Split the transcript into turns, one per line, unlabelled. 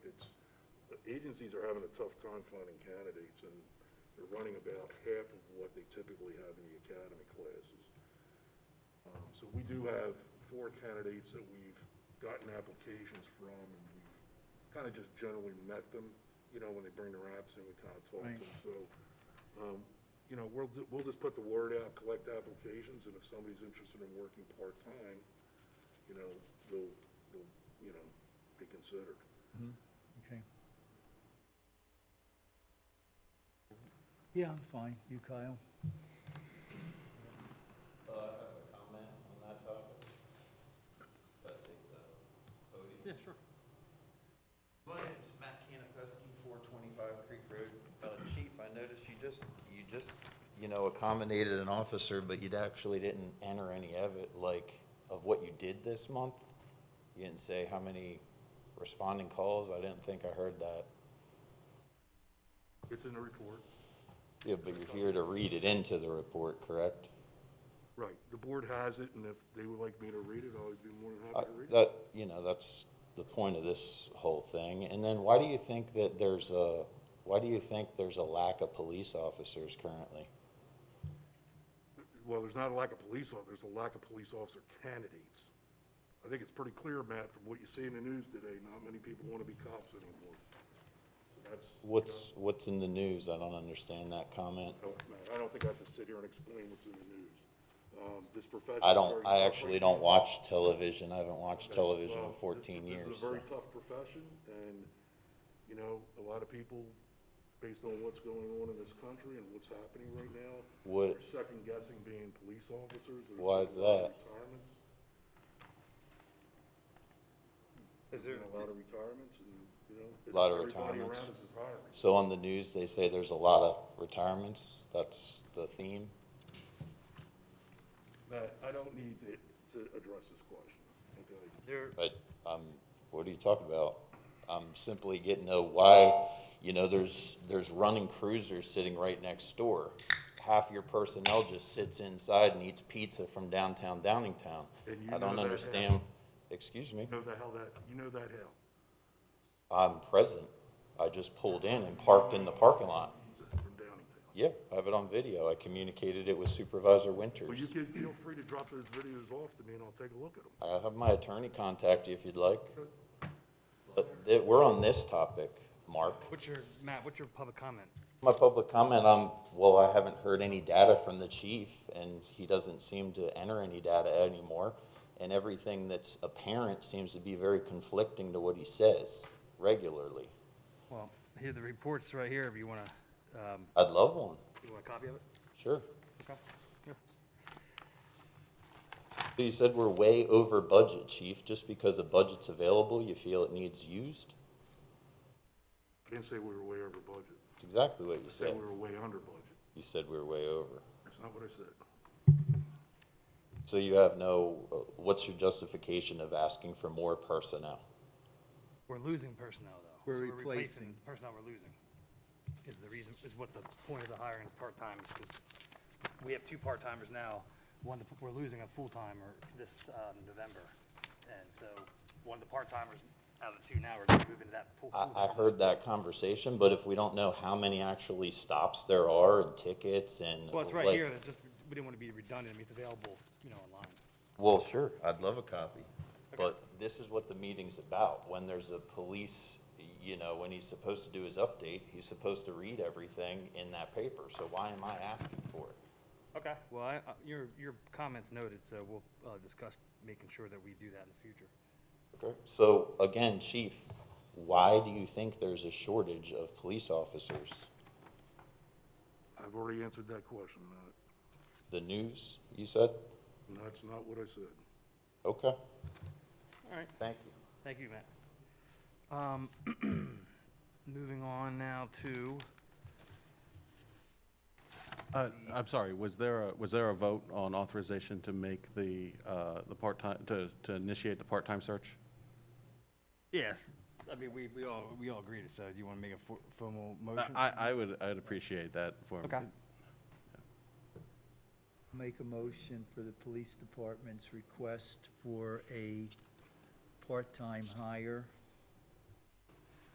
agencies are having a tough time finding candidates, and they're running about half of what they typically have in the academy classes. Um, So we do have four candidates that we've gotten applications from, and we've kind of just generally met them, you know, when they bring their apps in, we kind of talk to
Right.
them. So, um, you know, we'll, ju- we'll just put the word out, collect applications, and if somebody's interested in working part-time, you know, they'll, they'll, you know, be considered.
Okay. Yeah, I'm fine. You, Kyle?
Uh, I have a comment on that topic. If I take the podium.
Yeah, sure.
My name's Matt Kanapowski, four twenty-five Creek Road. Uh, Chief, I noticed you just, you just, you know, accommodated an officer, but you actually didn't enter any of it, like, of what you did this month? You didn't say how many responding calls? I didn't think I heard that.
It's in the report.
Yeah, but you're here to read it into the report, correct?
Right, the board has it, and if they would like me to read it, I'll be more than
I-
happy to read it.
That, you know, that's the point of this whole thing. And then why do you think that there's a, why do you think there's a lack of police officers currently?
Well, there's not a lack of police officers, there's a lack of police officer candidates. I think it's pretty clear, Matt, from what you see in the news today, not many people want to be cops anymore. So that's,
What's, what's in the news? I don't understand that comment.
I don't- Matt, I don't think I have to sit here and explain what's in the news. Um, This profession.
I don't, I actually don't watch television. I haven't watched television in
Well, this-
fourteen years.
This is a
so-
very tough profession, and, you know, a lot of people, based on what's going on in this country and what's happening right now,
What-
are second guessing being police officers. There's
Why is
been a lot of
that?
Retirements,
Is there,
There's been a lot of retirements, and, you know. it's-
Lot of
Everybody
retirements.
around us is hiring.
So on the news, they say there's a lot of retirements. That's the theme.
Matt, I don't need to, to address this question, okay?
there,
But, um, what are you talking about? I'm simply getting to why, you know, there's, there's running cruisers sitting right next door. Half your personnel just sits inside and eats pizza from downtown Downingtown.
And you
I don't
know that, Al.
understand, excuse me,
You know the hell that, you know that hell.
I'm present. I just pulled in and parked in the parking lot.
From Downingtown.
Yeah, I have it on video. I communicated it with Supervisor
Well, you
Winters.
can, feel free to drop those videos off to me, and I'll take a look at them.
I'll have my attorney contact you if you'd like. But th- we're on this topic, Mark.
what's your, Matt, what's your public comment?
My public comment, um, well, I haven't heard any data from the chief, and he doesn't seem to enter any data anymore. And everything that's apparent seems to be very conflicting to what he says regularly.
Well, here, the report's right here, if you wanna, um,
I'd love one,
you want a copy of it?
sure.
Okay. Yeah.
So you said we're way over budget, chief, just because the budget's available, you feel it needs used?
I didn't say we were way over budget.
That's exactly what you
I said
said.
we were way under budget.
You said we we're way over.
That's not what I said.
So you have no, uh, what's your justification of asking for more personnel?
We're losing personnel, though.
We're
So
replacing.
the Personnel we're losing is the reason, is what the point of the hiring of part-time is, 'cause we have two part-timers now. One, that we're losing a full-timer this, um, November. And so, one of the part-timers out of the two now are gonna move into that pool.
I, I heard that conversation, but if we don't know how many actually stops there are and tickets and.
Well, it's right
like-
here, it's just, we didn't wanna be redundant, I mean, it's available, you know, online.
Well, sure, I'd love a copy. But this is what the meeting's about. When there's a police, you know, when he's supposed to do his update, he's supposed to read everything in that paper. So why am I asking for it?
Okay, well, I, I- your, your comment's noted, so we'll, uh, discuss making sure that we do that in the future.
Okay. So again, chief, why do you think there's a shortage of police officers?
I've already answered that question, Matt.
The news, you said?
And that's not what I said.
Okay,
All right.
thank you.
Thank you, Matt. Um, Moving on now to,
Uh, I'm sorry, was there, a was there a vote on authorization to make the, uh, the part-time, to, to initiate the part-time search?
yes, I mean, we, we all, we all agreed, so do you want to make a fo- formal
I,
motion?
I I would, I'd appreciate that for.
Okay.
Make a motion for the police department's request for a part-time hire